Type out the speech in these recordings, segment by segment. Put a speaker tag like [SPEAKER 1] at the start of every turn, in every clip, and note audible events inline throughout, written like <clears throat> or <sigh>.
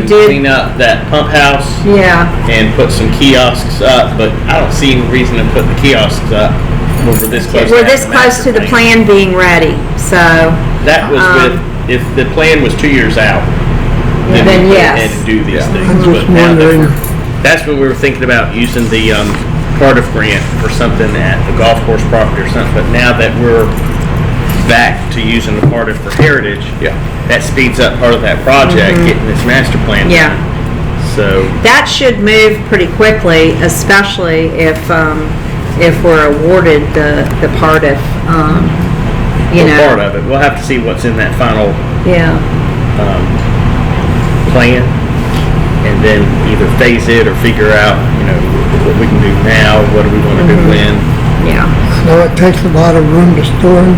[SPEAKER 1] to
[SPEAKER 2] did.
[SPEAKER 1] clean up that pump house
[SPEAKER 2] Yeah,
[SPEAKER 1] and put some kiosks up, but I don't see any reason to put the kiosks up when we're this close. to
[SPEAKER 2] we're
[SPEAKER 1] having
[SPEAKER 2] this
[SPEAKER 1] a
[SPEAKER 2] close
[SPEAKER 1] master
[SPEAKER 2] to the
[SPEAKER 1] plan.
[SPEAKER 2] plan being ready, so,
[SPEAKER 1] That was
[SPEAKER 2] Um,
[SPEAKER 1] with, if the plan was two years out.
[SPEAKER 2] Then
[SPEAKER 1] we could
[SPEAKER 2] yes.
[SPEAKER 1] And do these things.
[SPEAKER 3] I'm
[SPEAKER 1] But
[SPEAKER 3] just
[SPEAKER 1] now that
[SPEAKER 3] wondering,
[SPEAKER 1] we're- That's what we were thinking about, using the, um, Cardiff grant for something at the golf course property or something. But now that we're back to using the Cardiff for heritage.
[SPEAKER 4] Yeah.
[SPEAKER 1] That speeds up part of that project, getting this master plan.
[SPEAKER 2] Mm-hmm. Yeah.
[SPEAKER 1] done. So,
[SPEAKER 2] that should move pretty quickly, especially if, um, if we're awarded the, the part of, um, you
[SPEAKER 1] we're
[SPEAKER 2] know.
[SPEAKER 1] part of it. We'll have to see what's in that final
[SPEAKER 2] Yeah,
[SPEAKER 1] um, plan and then either phase it or figure out, you know, what we can do now, what do we want to do
[SPEAKER 2] Mm-hmm.
[SPEAKER 1] when.
[SPEAKER 2] yeah.
[SPEAKER 3] now it takes a lot of room to store them.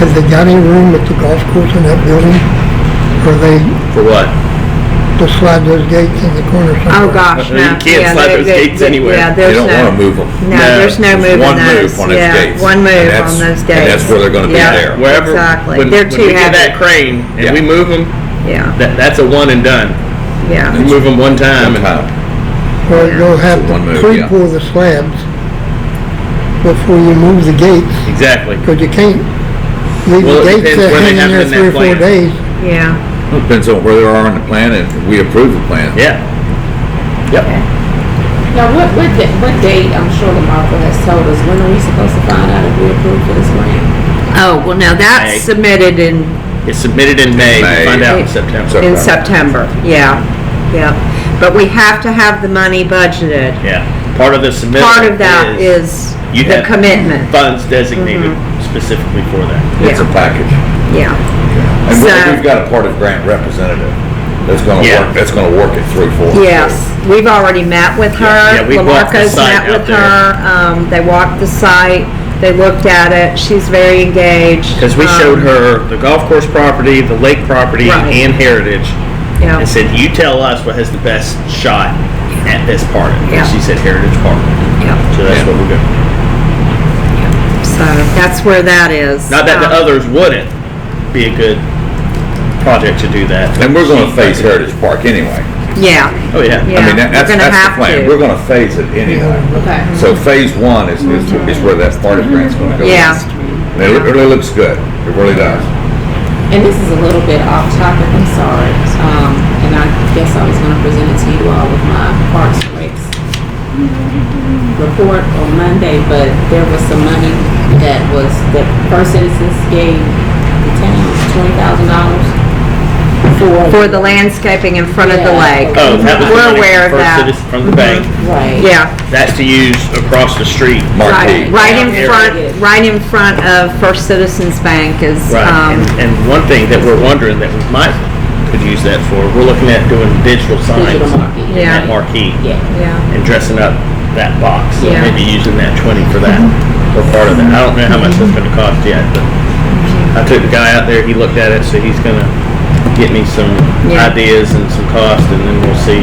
[SPEAKER 3] Has they got any room at the golf course in that building? Or they
[SPEAKER 1] For what?
[SPEAKER 3] just slide those gates in the corner
[SPEAKER 2] Oh,
[SPEAKER 3] somewhere?
[SPEAKER 2] gosh,
[SPEAKER 1] You
[SPEAKER 2] no.
[SPEAKER 1] can't
[SPEAKER 2] Yeah,
[SPEAKER 1] slide
[SPEAKER 2] they-
[SPEAKER 1] those
[SPEAKER 2] they-
[SPEAKER 1] gates
[SPEAKER 2] they-
[SPEAKER 1] anywhere.
[SPEAKER 2] Yeah,
[SPEAKER 4] You
[SPEAKER 2] there's no.
[SPEAKER 4] don't want to move them.
[SPEAKER 2] No,
[SPEAKER 1] No,
[SPEAKER 2] there's no
[SPEAKER 4] There's
[SPEAKER 2] moving
[SPEAKER 4] one
[SPEAKER 2] those.
[SPEAKER 4] move on those
[SPEAKER 2] yeah,
[SPEAKER 4] gates.
[SPEAKER 2] one move
[SPEAKER 4] and that's-
[SPEAKER 2] on those dates.
[SPEAKER 4] And that's where they're going to be
[SPEAKER 2] yeah,
[SPEAKER 4] there.
[SPEAKER 1] Wherever.
[SPEAKER 2] Exactly.
[SPEAKER 1] When,
[SPEAKER 2] They're
[SPEAKER 1] when
[SPEAKER 2] too
[SPEAKER 1] we get
[SPEAKER 2] heavy.
[SPEAKER 1] that crane and we
[SPEAKER 4] Yeah.
[SPEAKER 1] move them,
[SPEAKER 2] Yeah,
[SPEAKER 1] that, that's a one and done. You
[SPEAKER 2] yeah,
[SPEAKER 1] move them one time and
[SPEAKER 4] Time.
[SPEAKER 3] Or you'll have
[SPEAKER 4] So one
[SPEAKER 3] to
[SPEAKER 4] move, yeah.
[SPEAKER 3] pre-pour the slabs before you move the gates,
[SPEAKER 1] exactly.
[SPEAKER 3] because you can't leave
[SPEAKER 1] Well, it
[SPEAKER 3] the
[SPEAKER 1] depends
[SPEAKER 3] gates there
[SPEAKER 1] where they
[SPEAKER 3] hanging
[SPEAKER 1] have
[SPEAKER 3] there
[SPEAKER 1] it in
[SPEAKER 3] three or
[SPEAKER 1] that
[SPEAKER 3] four
[SPEAKER 1] plan.
[SPEAKER 3] days.
[SPEAKER 2] yeah.
[SPEAKER 4] Depends on where they are on the plan and we approve the plan.
[SPEAKER 1] Yeah. Yep.
[SPEAKER 5] Now, what, what, da- what date, I'm sure the Marco has told us, when are we supposed to find out if we approved for this grant?
[SPEAKER 2] Oh, well, now
[SPEAKER 1] May.
[SPEAKER 2] that's submitted in,
[SPEAKER 1] It's submitted in May. We
[SPEAKER 4] May.
[SPEAKER 1] find out in
[SPEAKER 2] It-
[SPEAKER 1] September.
[SPEAKER 4] So-
[SPEAKER 2] in
[SPEAKER 4] September.
[SPEAKER 2] September, yeah, yeah. But we have to have the money budgeted.
[SPEAKER 1] Yeah. Part of the submission
[SPEAKER 2] Part of
[SPEAKER 1] is
[SPEAKER 2] that is Mm-hmm.
[SPEAKER 1] you
[SPEAKER 2] the
[SPEAKER 1] have-
[SPEAKER 2] commitment,
[SPEAKER 1] funds designated specifically for that.
[SPEAKER 4] It's a package.
[SPEAKER 2] yeah,
[SPEAKER 4] And
[SPEAKER 2] So-
[SPEAKER 4] we- we've got a part of grant representative that's going to
[SPEAKER 1] Yeah.
[SPEAKER 4] work, that's going to work it through for us.
[SPEAKER 2] yes. We've already met with
[SPEAKER 1] Yeah,
[SPEAKER 2] her.
[SPEAKER 1] yeah, we walked the
[SPEAKER 2] Lamarcos
[SPEAKER 1] site
[SPEAKER 2] met
[SPEAKER 1] out
[SPEAKER 2] with
[SPEAKER 1] there.
[SPEAKER 2] her, um, they walked the site, they looked at it, she's very engaged.
[SPEAKER 1] Because we
[SPEAKER 2] um,
[SPEAKER 1] showed her the golf course property, the lake property,
[SPEAKER 2] Right.
[SPEAKER 1] and heritage,
[SPEAKER 2] Yeah,
[SPEAKER 1] and said, "You tell us what has the best shot at this part."
[SPEAKER 2] Yeah.
[SPEAKER 1] And she said, "Heritage Park."
[SPEAKER 2] yeah,
[SPEAKER 1] So that's
[SPEAKER 4] Yeah.
[SPEAKER 1] what we're doing.
[SPEAKER 2] so that's where that is.
[SPEAKER 1] Not that the
[SPEAKER 2] Um,
[SPEAKER 1] others wouldn't be a good project to do that. but
[SPEAKER 4] And we're going
[SPEAKER 1] she-
[SPEAKER 4] to phase Heritage Park anyway.
[SPEAKER 2] Yeah,
[SPEAKER 1] Oh yeah.
[SPEAKER 2] Yeah.
[SPEAKER 4] I mean, that-
[SPEAKER 2] we're
[SPEAKER 4] that's,
[SPEAKER 2] gonna
[SPEAKER 4] that's
[SPEAKER 2] have
[SPEAKER 4] the plan.
[SPEAKER 2] to. Mm-hmm.
[SPEAKER 4] We're going to phase it anyway.
[SPEAKER 5] Okay.
[SPEAKER 4] So phase one is, is is where that part of grant's going to go.
[SPEAKER 2] Yeah.
[SPEAKER 4] And It it really looks good. It really does.
[SPEAKER 5] And this is a little bit off topic, I'm sorry. Um, and I guess I was gonna present it to you all with my Parks and Recs report on Monday, but there was some money that was, that First Citizens gave the town twenty thousand dollars for.
[SPEAKER 2] for the landscaping in front of the
[SPEAKER 5] Yeah.
[SPEAKER 2] lake.
[SPEAKER 1] Oh, that was the
[SPEAKER 2] We're
[SPEAKER 1] money
[SPEAKER 2] aware of
[SPEAKER 1] from First
[SPEAKER 2] that. Mm-hmm.
[SPEAKER 1] Citizen- from the bank.
[SPEAKER 5] Right.
[SPEAKER 2] Yeah,
[SPEAKER 1] That's to use across the street.
[SPEAKER 4] Marquee.
[SPEAKER 2] right, right in
[SPEAKER 1] Yeah.
[SPEAKER 2] front, right in front of First Citizens Bank is,
[SPEAKER 1] Right.
[SPEAKER 2] um,
[SPEAKER 1] and, and one thing that we're wondering that we might could use that for, we're looking at doing digital signs
[SPEAKER 5] Digital market.
[SPEAKER 1] in
[SPEAKER 2] Yeah.
[SPEAKER 1] that marquee.
[SPEAKER 5] Yeah.
[SPEAKER 2] yeah.
[SPEAKER 1] and dressing up that box. So
[SPEAKER 2] Yeah.
[SPEAKER 1] maybe using that twenty for that or part of that. I don't know how much that's gonna cost yet, but I took the guy out there, he looked at it, so he's gonna get me some
[SPEAKER 2] Yeah.
[SPEAKER 1] ideas and some cost and then we'll see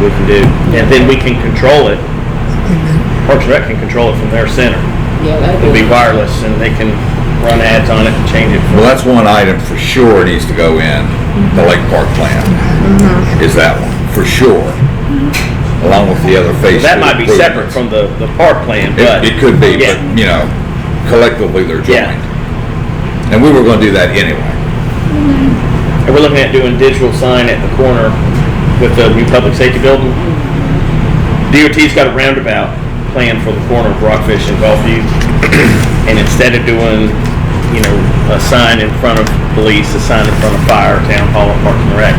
[SPEAKER 1] what we can do. And then we can control it. Parks and Rec can control it from their center.
[SPEAKER 5] Yeah, that'd
[SPEAKER 1] It'll
[SPEAKER 5] be.
[SPEAKER 1] be wireless and they can run ads on it and change it.
[SPEAKER 4] Well, that's one item for sure needs to go in the Lake Park plan, is that one, for sure. Along with the other phase.
[SPEAKER 1] That
[SPEAKER 4] two
[SPEAKER 1] might be separate
[SPEAKER 4] improvements.
[SPEAKER 1] from the, the park plan, but.
[SPEAKER 4] It, it could be, but,
[SPEAKER 1] Yeah.
[SPEAKER 4] you know, collectively they're
[SPEAKER 1] Yeah.
[SPEAKER 4] joined. And we were gonna do that anyway.
[SPEAKER 1] And we're looking at doing digital sign at the corner with the new public safety building. DOT's got a roundabout plan for the corner of Rockfish and Gulfview. <clears throat> And instead of doing, you know, a sign in front of police, a sign in front of fire, town hall, and parking rec,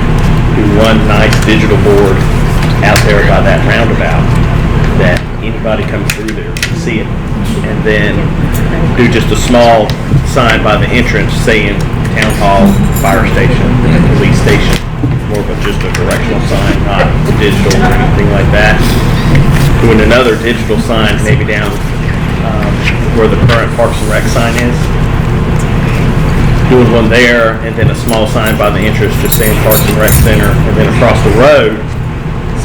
[SPEAKER 1] do one nice digital board out there by that roundabout that anybody comes through there can see it. And then do just a small sign by the entrance saying town hall, fire station, and police station. More of a, just a directional sign, not digital or anything like that. Doing another digital sign maybe down, um, where the current Parks and Rec sign is. Doing one there and then a small sign by the entrance just saying Parks and Rec Center. And then across the road,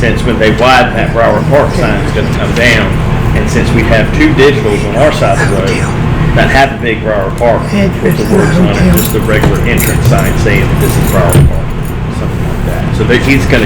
[SPEAKER 1] since when they widen that Broward Park sign is gonna come down, and since we have two digitals on our side of the road, that have a big Broward Park with the words on it, just the regular entrance sign saying that this is Broward Park, something like that. So so that he's gonna